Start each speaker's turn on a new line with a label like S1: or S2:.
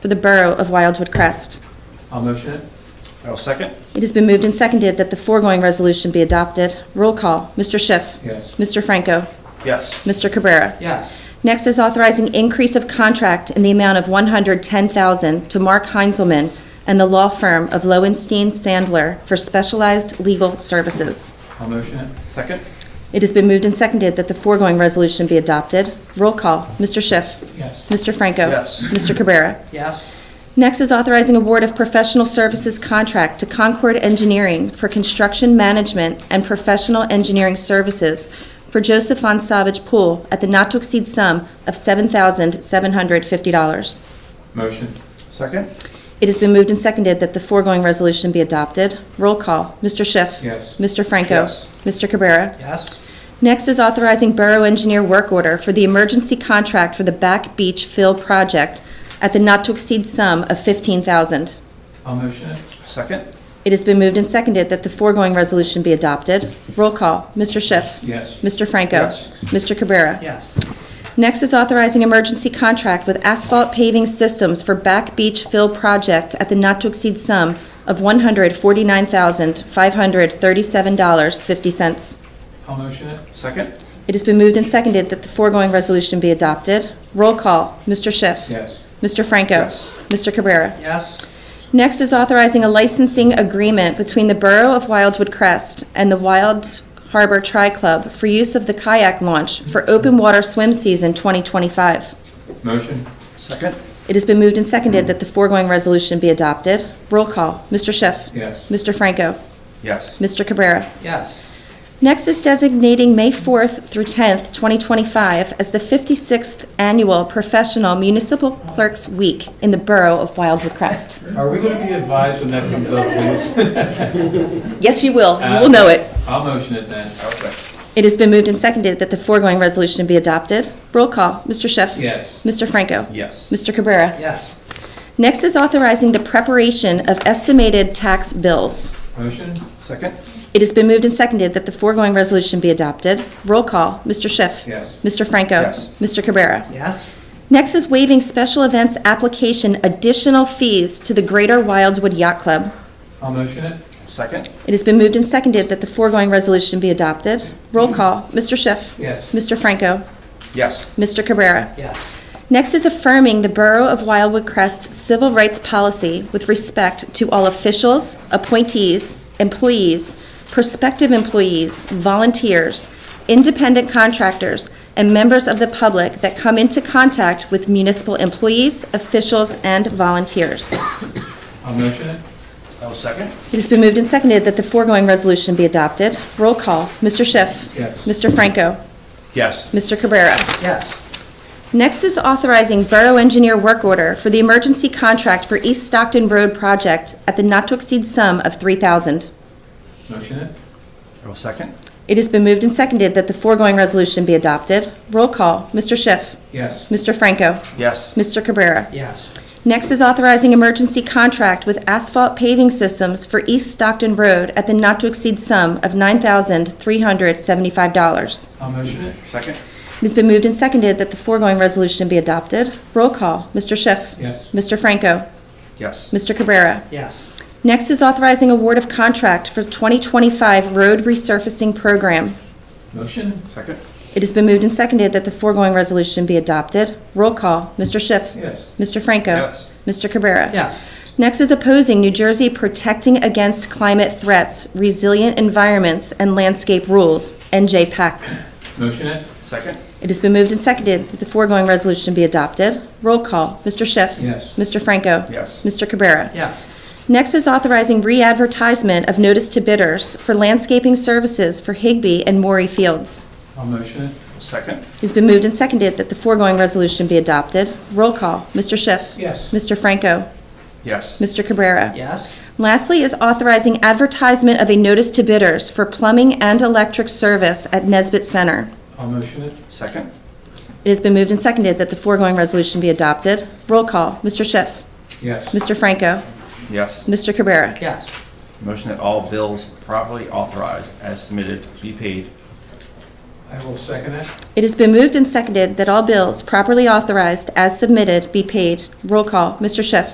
S1: for the Borough of Wildwood Crest.
S2: I'll motion it.
S3: I'll Oh, second.
S1: It has been moved and seconded that the foregoing resolution be adopted. Roll call, Mr. Schiff.
S2: Yes.
S1: Mr. Franco.
S3: Yes.
S1: Mr. Cabrera.
S2: Yes.
S1: Next is authorizing increase of contract in the amount of 110000 to Mark Heinzelman and the law firm of Lowenstein Sandler for specialized legal services.
S2: I'll motion it.
S3: Second.
S1: It has been moved and seconded that the foregoing resolution be adopted. Roll call, Mr. Schiff.
S2: Yes.
S1: Mr. Franco.
S3: Yes.
S1: Mr. Cabrera.
S2: Yes.
S1: Next is authorizing award of professional services contract to Concord Engineering for construction management and professional engineering services for Joseph Von Savage Pool at the not-to-exceed sum of $7,750.
S2: Motion.
S3: Second.
S1: It has been moved and seconded that the foregoing resolution be adopted. Roll call. Mr. Schiff.
S2: Yes.
S1: Mr. Franco.
S3: Yes.
S1: Mr. Cabrera.
S2: Yes.
S1: Next is authorizing Borough Engineer work order for the emergency contract for the Back Beach Fill Project at the not-to-exceed sum of $15,000.
S2: I'll motion it.
S3: Second.
S1: It has been moved and seconded that the foregoing resolution be adopted. Roll call, Mr. Schiff.
S2: Yes.
S1: Mr. Franco.
S3: Yes.
S1: Mr. Cabrera.
S2: Yes.
S1: Next is authorizing emergency contract with Asphalt Paving Systems for Back Beach Fill Project at the not-to-exceed sum of $149,537.50.
S2: I'll motion it.
S3: Second.
S1: It has been moved and seconded that the foregoing resolution be adopted. Roll call, Mr. Schiff.
S2: Yes.
S1: Mr. Franco.
S3: Yes.
S1: Mr. Cabrera.
S2: Yes.
S1: Next is authorizing a licensing agreement between the Borough of Wildwood Crest and the Wild Harbor Tri Club for use of the kayak launch for open water swim season 2025.
S2: Motion.
S3: Second.
S1: It has been moved and seconded that the foregoing resolution be adopted. Roll call, Mr. Schiff.
S2: Yes.
S1: Mr. Franco.
S3: Yes.
S1: Mr. Cabrera.
S2: Yes.
S1: Next is designating May 4th through 10th, 2025 as the 56th Annual Professional Municipal Clerks Week in the Borough of Wildwood Crest.
S2: Are we going to be advised when that comes up, please?
S1: Yes, you will. You will know it.
S2: I'll motion it then.
S3: I'll second.
S1: It has been moved and seconded that the foregoing resolution be adopted. Roll call, Mr. Schiff.
S2: Yes.
S1: Mr. Franco.
S3: Yes.
S1: Mr. Cabrera.
S2: Yes.
S1: Next is authorizing the preparation of estimated tax bills.
S2: Motion.
S3: Second.
S1: It has been moved and seconded that the foregoing resolution be adopted. Roll call, Mr. Schiff.
S2: Yes.
S1: Mr. Franco.
S3: Yes.
S1: Mr. Cabrera.
S2: Yes.
S1: Next is waiving special events application additional fees to the Greater Wildwood Yacht Club.
S2: I'll motion it.
S3: Second.
S1: It has been moved and seconded that the foregoing resolution be adopted. Roll call, Mr. Schiff.
S2: Yes.
S1: Mr. Franco.
S3: Yes.
S1: Mr. Cabrera.
S2: Yes.
S1: Next is affirming the Borough of Wildwood Crest's civil rights policy with respect to all officials, appointees, employees, prospective employees, volunteers, independent contractors, and members of the public that come into contact with municipal employees, officials, and volunteers.
S2: I'll motion it.
S3: I'll second.
S1: It has been moved and seconded that the foregoing resolution be adopted. Roll call, Mr. Schiff.
S2: Yes.
S1: Mr. Franco.
S3: Yes.
S1: Mr. Cabrera.
S2: Yes.
S1: Next is authorizing Borough Engineer work order for the emergency contract for East Stockton Road project at the not-to-exceed sum of $3,000.
S2: Motion it.
S3: I'll second.
S1: It has been moved and seconded that the foregoing resolution be adopted. Roll call, Mr. Schiff.
S2: Yes.
S1: Mr. Franco.
S3: Yes.
S1: Mr. Cabrera.
S2: Yes.
S1: Next is authorizing emergency contract with Asphalt Paving Systems for East Stockton Road at the not-to-exceed sum of $9,375.
S2: I'll motion it.
S3: Second.
S1: It has been moved and seconded that the foregoing resolution be adopted. Roll call, Mr. Schiff.
S2: Yes.
S1: Mr. Franco.
S3: Yes.
S1: Mr. Cabrera.
S2: Yes.
S1: Next is authorizing award of contract for 2025 road resurfacing program.
S2: Motion.
S3: Second.
S1: It has been moved and seconded that the foregoing resolution be adopted. Roll call, Mr. Schiff.
S2: Yes.
S1: Mr. Franco.
S3: Yes.
S1: Mr. Cabrera.
S2: Yes.
S1: Next is opposing New Jersey Protecting Against Climate Threats, Resilient Environments, and Landscape Rules, NJ Pact.
S2: Motion it.
S3: Second.
S1: It has been moved and seconded that the foregoing resolution be adopted. Roll call, Mr. Schiff.
S2: Yes.
S1: Mr. Franco.
S3: Yes.
S1: Mr. Cabrera.
S2: Yes.
S1: Next is authorizing re-advertisement of notice to bidders for landscaping services for Higby and Maury Fields.
S2: I'll motion it.
S3: Second.
S1: It's been moved and seconded that the foregoing resolution be adopted. Roll call, Mr. Schiff.
S2: Yes.
S1: Mr. Franco.
S3: Yes.
S1: Mr. Cabrera.
S2: Yes.
S1: Lastly is authorizing advertisement of a notice to bidders for plumbing and electric service at Nesbit Center.
S2: I'll motion it.
S3: Second.
S1: It has been moved and seconded that the foregoing resolution be adopted. Roll call, Mr. Schiff.
S2: Yes.
S1: Mr. Franco.
S3: Yes.
S1: Mr. Cabrera.
S2: Yes.
S3: Motion that all bills properly authorized as submitted be paid.
S2: I I will second it.
S1: It has been moved and seconded that all bills properly authorized as submitted be paid. Roll call, Mr. Schiff.